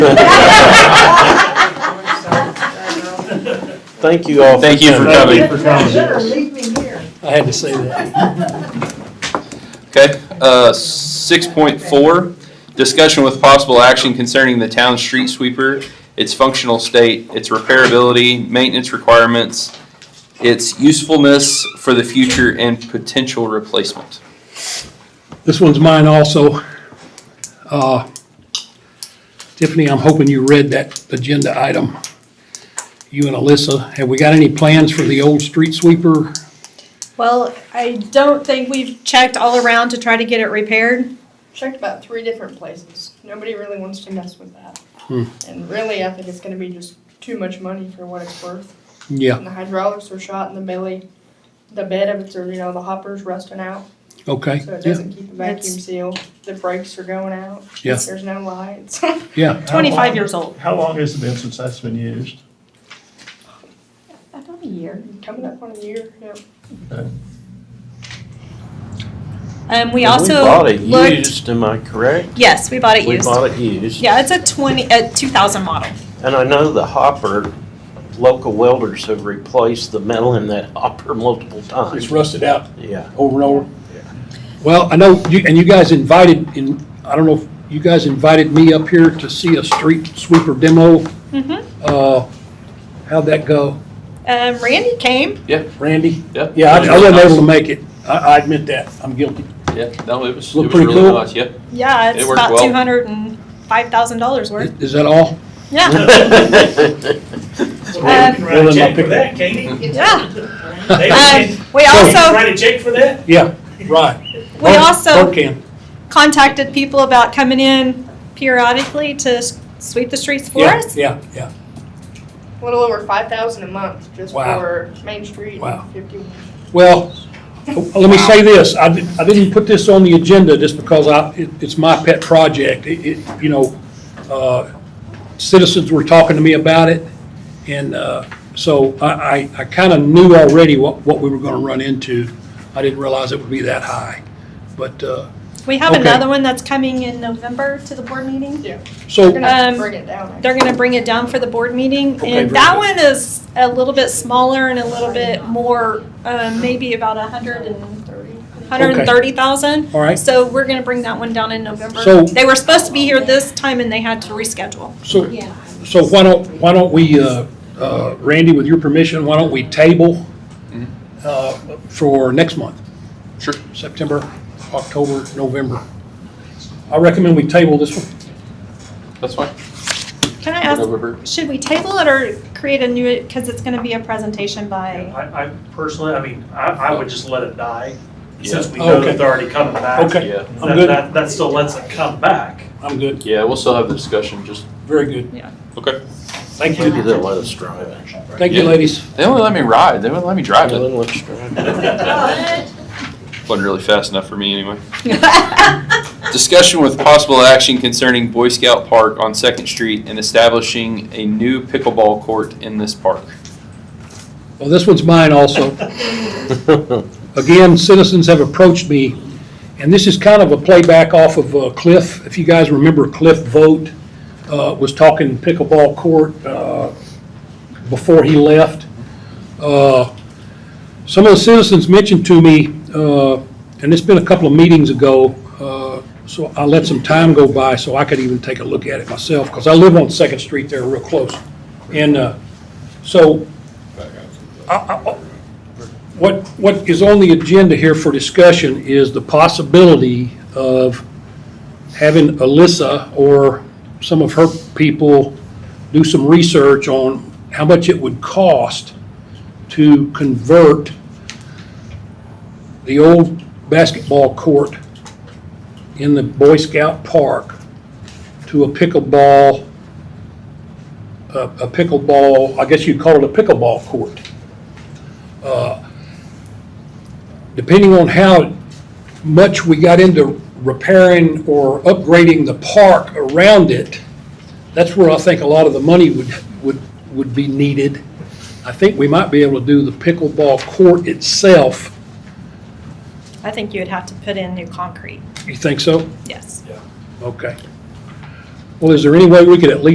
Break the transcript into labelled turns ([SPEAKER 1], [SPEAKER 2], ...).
[SPEAKER 1] Thank you all.
[SPEAKER 2] Thank you for
[SPEAKER 1] coming.
[SPEAKER 2] coming.
[SPEAKER 3] Thank you for
[SPEAKER 4] Y'all better
[SPEAKER 3] coming.
[SPEAKER 4] leave me here.
[SPEAKER 5] I had to say that.
[SPEAKER 2] Okay, uh, six point four, discussion with possible action concerning the town street sweeper, its functional state, its repairability, maintenance requirements, its usefulness for the future and potential replacement.
[SPEAKER 5] This one's mine also. Uh, Tiffany, I'm hoping you read that agenda item. You and Alyssa, have we got any plans for the old street sweeper?
[SPEAKER 6] Well, I don't think we've checked all around to try to get it repaired.
[SPEAKER 7] checked about three different places. Nobody really wants to mess with that.
[SPEAKER 5] Hmm.
[SPEAKER 7] And really, I think it's going to be just too much money for what it's worth.
[SPEAKER 5] Yeah,
[SPEAKER 7] And the hydraulics are shot in the belly. The bed of it's, or, you know, the hopper's rusting out,
[SPEAKER 5] okay,
[SPEAKER 7] so it
[SPEAKER 5] yeah,
[SPEAKER 7] doesn't keep a vacuum
[SPEAKER 6] It's-
[SPEAKER 7] seal. The brakes are going out.
[SPEAKER 5] Yeah.
[SPEAKER 7] There's no lights.
[SPEAKER 5] yeah.
[SPEAKER 6] Twenty-five years old.
[SPEAKER 3] How long has it been since that's been used?
[SPEAKER 7] About a year. Coming up on a year. Yep.
[SPEAKER 6] Um, we
[SPEAKER 1] And
[SPEAKER 6] also
[SPEAKER 1] bought it
[SPEAKER 6] looked,
[SPEAKER 1] Used, am I correct?
[SPEAKER 6] yes, we bought it
[SPEAKER 1] We
[SPEAKER 6] used.
[SPEAKER 1] bought it used.
[SPEAKER 6] Yeah, it's a twenty, a two thousand model.
[SPEAKER 1] And I know the hopper, local welders have replaced the metal in that hopper multiple
[SPEAKER 5] It's
[SPEAKER 1] times.
[SPEAKER 5] rusted out
[SPEAKER 1] Yeah.
[SPEAKER 5] over and over. Well, I know, you and you guys invited, in. I don't know, if you guys invited me up here to see a street sweeper demo.
[SPEAKER 6] Mm-hmm.
[SPEAKER 5] Uh, How'd that go?
[SPEAKER 6] Um, Randy came.
[SPEAKER 5] Randy?
[SPEAKER 2] Yep.
[SPEAKER 5] Yeah, I I wasn't able to make it. I, I admit that. I'm guilty.
[SPEAKER 2] Yeah, no, it was, it
[SPEAKER 5] Looked
[SPEAKER 2] was
[SPEAKER 5] pretty
[SPEAKER 2] really
[SPEAKER 5] cool.
[SPEAKER 2] nice, yep.
[SPEAKER 6] Yeah,
[SPEAKER 2] It
[SPEAKER 6] it's
[SPEAKER 2] worked
[SPEAKER 6] about
[SPEAKER 2] well.
[SPEAKER 6] two hundred and five thousand dollars worth.
[SPEAKER 5] Is that all?
[SPEAKER 6] Yeah,
[SPEAKER 3] So
[SPEAKER 6] Uh,
[SPEAKER 3] we can write a check for that, Katie.
[SPEAKER 6] yeah.
[SPEAKER 3] They can-
[SPEAKER 6] Um, we
[SPEAKER 3] they can
[SPEAKER 6] also,
[SPEAKER 3] Write a check for that?
[SPEAKER 5] Yeah, right.
[SPEAKER 6] we also
[SPEAKER 5] Bert can.
[SPEAKER 6] contacted people about coming in periodically to s- sweep the streets for
[SPEAKER 5] Yeah,
[SPEAKER 6] us.
[SPEAKER 5] yeah, yeah.
[SPEAKER 7] A little over five thousand a month just
[SPEAKER 5] Wow.
[SPEAKER 7] for Main Street. and
[SPEAKER 5] Wow.
[SPEAKER 7] 50
[SPEAKER 5] Well, let me say this. I, di- I didn't put this on the agenda just because I, it, it's my pet project. It, it, you know, uh, citizens were talking to me about it. And, uh, so I, I, I kind of knew already what, what we were going to run into. I didn't realize it would be that high. But, uh,
[SPEAKER 6] We have
[SPEAKER 5] Okay.
[SPEAKER 6] another one that's coming in November to the board meeting.
[SPEAKER 5] so.
[SPEAKER 7] They're gonna
[SPEAKER 6] Um,
[SPEAKER 7] bring it down.
[SPEAKER 6] They're gonna bring it down for the board meeting,
[SPEAKER 5] Okay,
[SPEAKER 6] and
[SPEAKER 5] very
[SPEAKER 6] that
[SPEAKER 5] good.
[SPEAKER 6] one is a little bit smaller and a little bit more, uh, maybe about a hundred and,
[SPEAKER 7] Thirty.
[SPEAKER 6] hundred and thirty thousand.
[SPEAKER 5] All right.
[SPEAKER 6] So we're gonna bring that one down in November.
[SPEAKER 5] So-
[SPEAKER 6] They were supposed to be here this time and they had to reschedule.
[SPEAKER 5] So, so why don't, why don't we, uh, uh, Randy, with your permission, why don't we table uh, for next month?
[SPEAKER 2] Sure.
[SPEAKER 5] September, October, November. I recommend we table this one.
[SPEAKER 2] That's fine.
[SPEAKER 6] Can I ask,
[SPEAKER 2] November.
[SPEAKER 6] should we table it or create a new, cause it's gonna be a presentation by,
[SPEAKER 8] I, I personally, I mean, I, I would just let it die,
[SPEAKER 2] Yeah,
[SPEAKER 8] since we know
[SPEAKER 5] Okay.
[SPEAKER 8] that they're already coming back.
[SPEAKER 5] Okay.
[SPEAKER 2] yeah,
[SPEAKER 5] I'm
[SPEAKER 8] That-
[SPEAKER 5] good.
[SPEAKER 8] That, that still lets it come back.
[SPEAKER 5] I'm good.
[SPEAKER 2] yeah, we'll still have the discussion, just,
[SPEAKER 5] Very good.
[SPEAKER 2] okay.
[SPEAKER 5] Thank
[SPEAKER 1] Maybe
[SPEAKER 5] you.
[SPEAKER 1] they'll let us drive it.
[SPEAKER 5] Thank you, ladies.
[SPEAKER 2] They only let me ride, they wouldn't let me drive
[SPEAKER 1] They'll
[SPEAKER 2] it.
[SPEAKER 1] let us drive it.
[SPEAKER 6] Oh,
[SPEAKER 2] Wasn't really fast enough for me anyway. Discussion with possible action concerning Boy Scout Park on Second Street and establishing a new pickleball court in this park.
[SPEAKER 5] Well, this one's mine also. Again, citizens have approached me, and this is kind of a playback off of uh, Cliff. If you guys remember, Cliff Vogt uh, was talking pickleball court uh, before he left. Uh, Some of the citizens mentioned to me, uh, and it's been a couple of meetings ago, uh, so I let some time go by so I could even take a look at it myself, because I live on Second Street there real close. And uh, so I- I- What, what is on the agenda here for discussion is the possibility of having Alyssa or some of her people do some research on how much it would cost to convert the old basketball court in the Boy Scout Park to a pickleball, a a pickleball, I guess you'd call it a pickleball court depending on how much we got into repairing or upgrading the park around it, that's where I think a lot of the money would, would, would be needed. I think we might be able to do the pickleball court itself.
[SPEAKER 6] I think you would have to put in new concrete,
[SPEAKER 5] You think so?
[SPEAKER 6] yes.
[SPEAKER 5] Okay. Well, is there any way we could at least